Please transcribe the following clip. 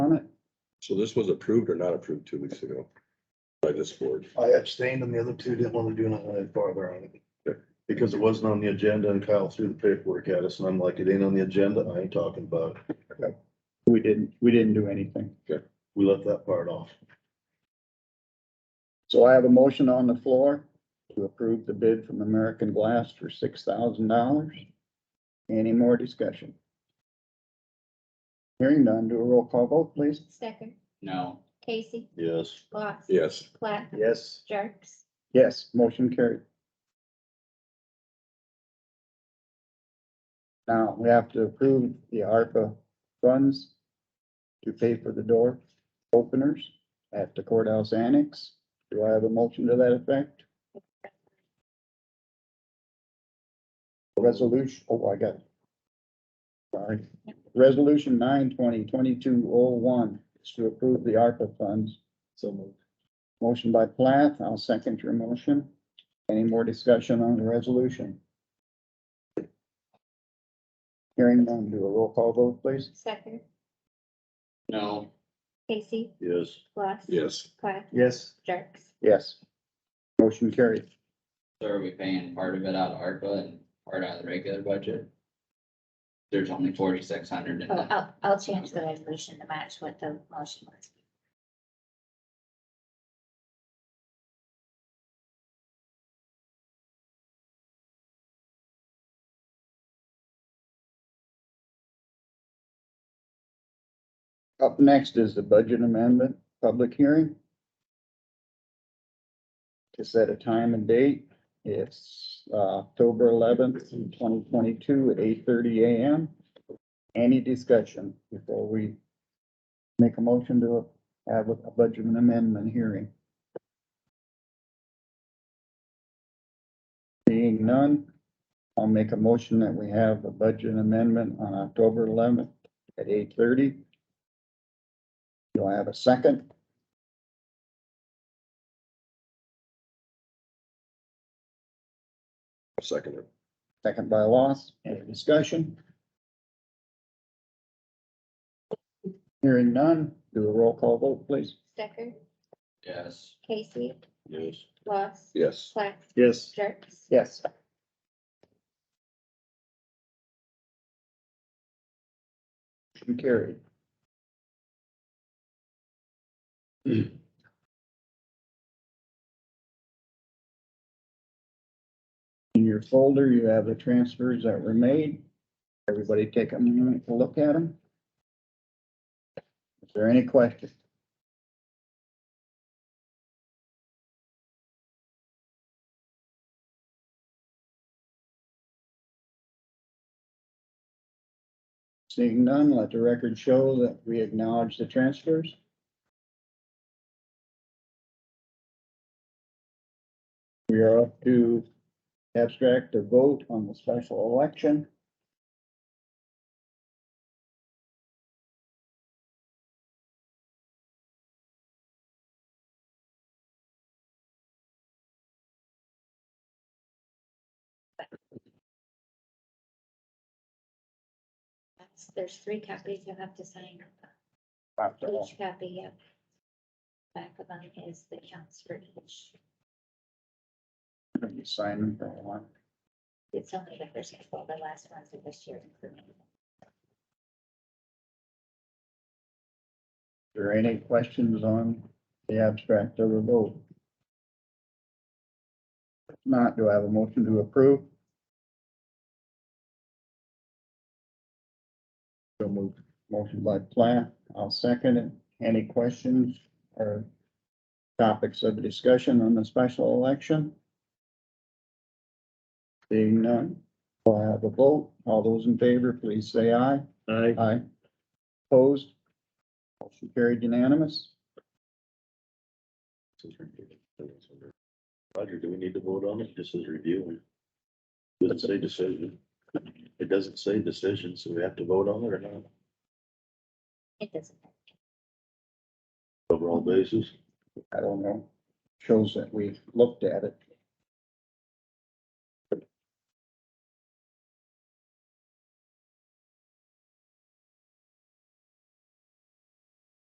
So this was approved or not approved two weeks ago by this board? I abstained and the other two didn't want to do nothing any farther on Okay. it. Because it wasn't on the agenda and Kyle threw the paperwork at us and I'm like, it ain't on the agenda. I ain't talking about it. We didn't, we didn't do anything. We left that part off. So I have a motion on the floor to approve the bid from American Glass for six thousand dollars. Any more discussion? Hearing none, do a roll call vote, please. Stecker, No, Casey, Yes. Lots. Yes, Platt, Yes. Jerks. Yes, motion carried. Now, we have to approve the ARPA funds to pay for the door openers at the courthouse annex. Do I have a motion to that effect? Resolution, oh, I got it. Sorry. Resolution nine twenty twenty-two oh one is to approve the ARPA funds. So moved. Motion by Plath, I'll second your motion. Any more discussion on the resolution? Hearing none, do a roll call vote, please. Stecker, no, Casey, Yes. Lots. yes, Platt, Yes. Jerks. Yes. Motion carried. so are we paying part of it out of ARPA and part out of the regular budget? There's only forty-six hundred in Oh, that. I'll, I'll change the resolution to match what the motion was. Up next is the budget amendment, public hearing. To set a time and date, it's uh, October eleventh, twenty twenty-two at eight thirty AM. Any discussion before we make a motion to have a a budget amendment hearing? Seeing none, I'll make a motion that we have a budget amendment on October eleventh at eight thirty. Do I have a second? I'll second it. Second by loss. Any discussion? Hearing none, do a roll call vote, please. Stecker, Yes, Casey, Yes. Lots. Yes, Platt, Yes. Jerks. Yes. Motion carried. In your folder, you have the transfers that were made. Everybody take a minute to look at them. Is there any questions? Seeing none, let the record show that we acknowledge the transfers. We are up to abstract or vote on the special election. That's- There's three copies you'll have to sign. After all. Each copy, yeah. Back of them is the counts for each. You sign them for one. It's only the first couple, the last ones of this year. Are included. there any questions on the abstract of the vote? If Not, do I have a motion to approve? So moved. Motion by Plath, I'll second it. Any questions or topics of discussion on the special election? Seeing none, we'll have a vote. All those in favor, please say aye. Aye. Aye. Opposed? Motion carried unanimous. Roger, do we need to vote on it? This is reviewing. Doesn't say decision. It doesn't say decision, so we have to vote on it or not? It doesn't. Overall basis? I don't know. Shows that we looked at it.